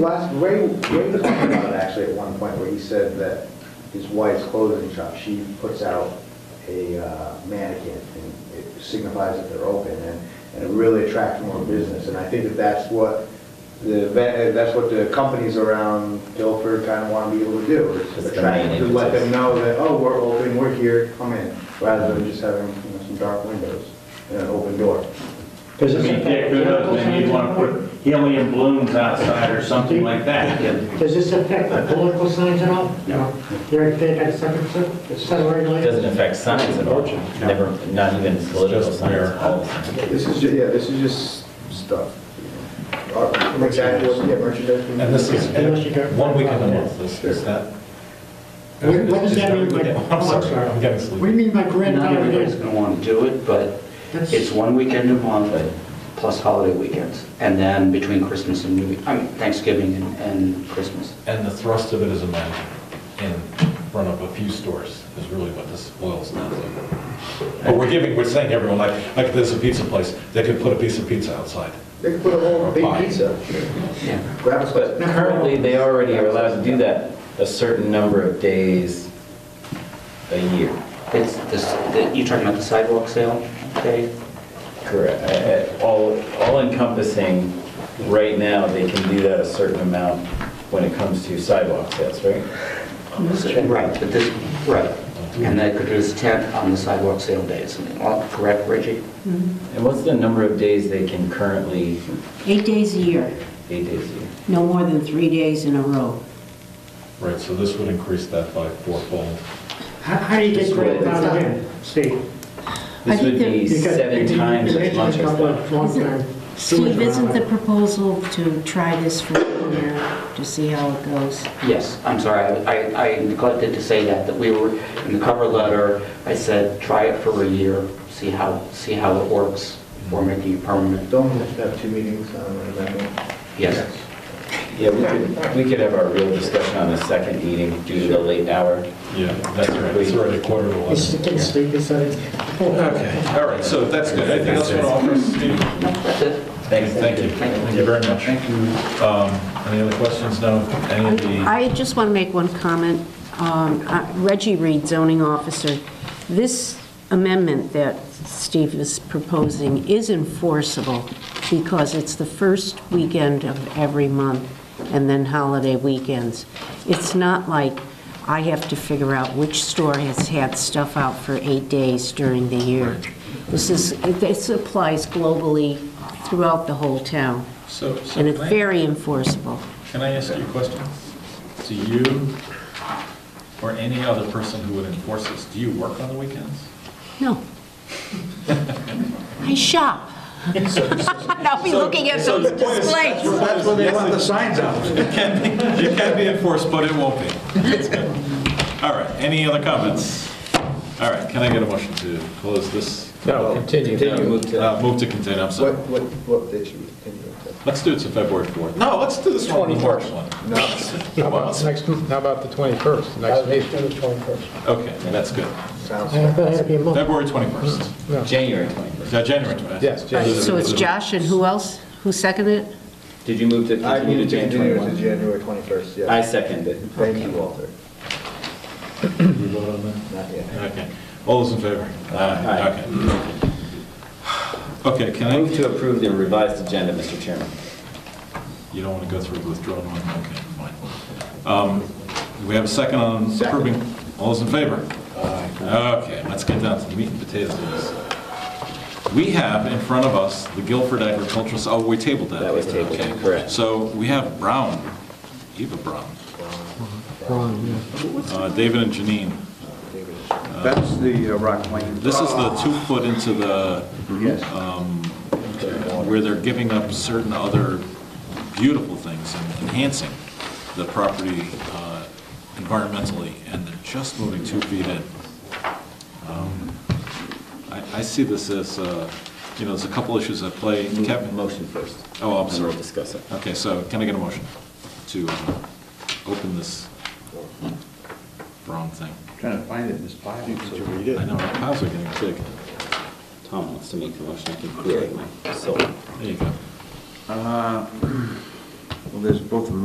Last, Ray, Ray talked about it actually at one point, where he said that his wife's clothing shop, she puts out a uh, mannequin, and it signifies that they're open, and, and it really attracts more business, and I think that that's what the, ve- that's what the companies around Guilford kind of want to be able to do, is It's to the attract, to main let them impetus. know that, oh, we're open, we're here, come in, rather than just having, you know, some dark windows and an open door. Because I mean, Dick Goodoff, maybe you want to put helium balloons outside or something like that. And Does this affect the political signs at all? No. You're, they got second, it's It regulated? doesn't affect science at all, never, not even political Just where- science. This is, ju- yeah, this is just stuff. Art- Exactly, what- yeah, merchandise. And this is Unless you got- one weekend a month, is is that? When- when does that mean by- Yeah, I'm sorry, I'm getting What do sleepy. you mean by Not grandfathered everybody's in? going to want to do it, but That's- it's one weekend a month, plus holiday weekends, and then between Christmas and New, I mean, Thanksgiving and- and Christmas. And the thrust of it is a man in front of a few stores is really what this boils down to. But we're giving, we're saying to everyone, like, like there's a pizza place, they could put a piece of pizza outside. They could put a whole big pizza, Yeah. grab a slice. But currently, they already are allowed to do that a certain number of days a year. It's this, the- you talking about the sidewalk sale day? Correct. I- I- All, all encompassing, right now, they can do that a certain amount when it comes to sidewalk sales, right? Right, but this, right. And they could do this tent on the sidewalk sale days, Well, correct, Reggie? And what's the number of days they can currently, Eight days a year, eight days a year? no more than three days in a row. Right, so this would increase that by fourfold. How, how do you get Just where it's grandfathered in, Steve? I This think would be You got- seven you- you times as mentioned much a as couple that. of long-term sewers Steve, isn't around. the proposal to try this for a year to see how it goes? Yes, I'm sorry, I- I I neglected to say that, that we were, in the cover letter, I said, try it for a year, see how, see how it works before making it permanent. Don't have to have two meetings on that. Yes. Yeah, we could, we could have our real discussion on the second meeting due to the late hour. Yeah, that's right, it's already quarter to It's eleven. the kid's sleep, it's, uh, Okay, all right, so that's good. Anything else you want to offer, Steve? That's it. Thanks. Thank you. Thank you very much. Um, Any other questions? No? Any of the, I just want to make one comment. Um, uh, Reggie Reed, zoning officer, this amendment that Steve is proposing is enforceable because it's the first weekend of every month and then holiday weekends. It's not like I have to figure out which store has had stuff out for eight days during the year. This is, this applies globally throughout the whole town, so, so and it's can I- very enforceable. can I ask you a question? Do you or any other person who would enforce this, do you work on the weekends? No. I shop. I'll be looking at those displays. That's when they want the signs out. It can be enforced, but it won't be. All right, any other comments? All right, can I get a motion to close this? No, continue. Continue. Uh, Move to contain, I'm What, sorry. what, what day should we continue? Let's do it to February 4th. No, let's do this one. on the March one. How about the next, how about the 21st, next meeting? Okay, that's good. Sounds. I thought it had to be a month. February 21st. January 21st. Uh, January 21st. Yes, All right, January. So it's Josh and who else? Who seconded it? Did you move to I continue need to to January continue to January 21? 21st, yeah. I second it. Thank you, Walter. You vote on that? Not yet. Okay. All those in favor? Aye. Okay. Okay, can I I, move to approve the revised agenda, Mr. Chairman. you don't want to go through the withdrawn one? Okay, fine. Um, We have a second on approving. All those in favor? Aye. Okay, let's get down to the meat and potatoes of this. We have in front of us the Guilford Agricultural, oh, we tabled that. That was tabled, Okay. correct. So we have Brown, Eva Brown, uh, David and Janine. That's the uh, Rock Lane. This is the two foot into the, um, Yes. where they're giving up certain other beautiful things and enhancing the property uh, environmentally, and they're just moving two feet in. Um, I, I see this as, uh, you know, there's a couple issues at play. Kevin, Motion first. Oh, I'm And sorry. we'll discuss it. okay, so can I get a motion to uh, open this brown thing? Trying to find it in this file. Did you read I know, our piles are getting big. Tom wants to make the motion, I can clear my soul. There you go. Well, there's both of them